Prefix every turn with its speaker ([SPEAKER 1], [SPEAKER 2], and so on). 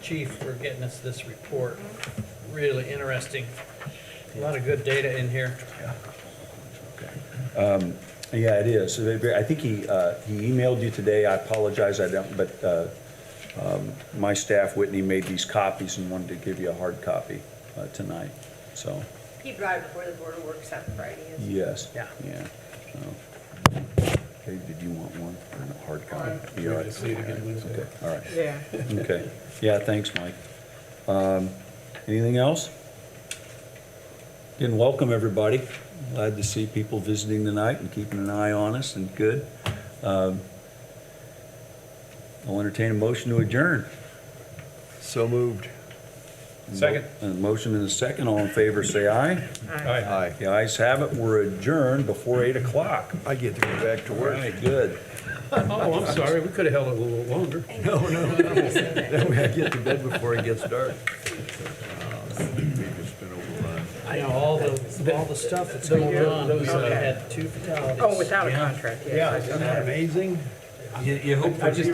[SPEAKER 1] chief for getting us this report. Really interesting. A lot of good data in here.
[SPEAKER 2] Um, Yeah, it is. So they- I think he, uh, he emailed you today. I apologize, I don't, but uh, um, my staff, Whitney, made these copies and wanted to give you a hard copy uh, tonight. So,
[SPEAKER 3] He drive before the board of works on Friday. isn't he?
[SPEAKER 2] yes.
[SPEAKER 1] Yeah.
[SPEAKER 2] Yeah. So, Okay, did you want one or a hard copy? You all right? Okay, All right.
[SPEAKER 4] Yeah.
[SPEAKER 2] Okay, yeah, thanks, Mike. Um, Anything else? Again, welcome, everybody. Glad to see people visiting tonight and keeping an eye on us and good. Um, I'll entertain a motion to adjourn.
[SPEAKER 5] So moved.
[SPEAKER 6] Second.
[SPEAKER 2] A motion and a second, all in favor, say aye.
[SPEAKER 5] Aye.
[SPEAKER 2] The ayes have it, we're adjourned before 8 o'clock.
[SPEAKER 5] I get to go back to
[SPEAKER 2] All
[SPEAKER 5] work.
[SPEAKER 2] right, good.
[SPEAKER 1] Oh, I'm sorry, we could have held it a little longer.
[SPEAKER 5] No, no, no. That way I get to bed before it gets dark.
[SPEAKER 1] I know, all the, all the stuff that's going on, we had two fatalities.
[SPEAKER 4] Oh, without a contract, yes.
[SPEAKER 5] Isn't that amazing?
[SPEAKER 6] You, you hope for just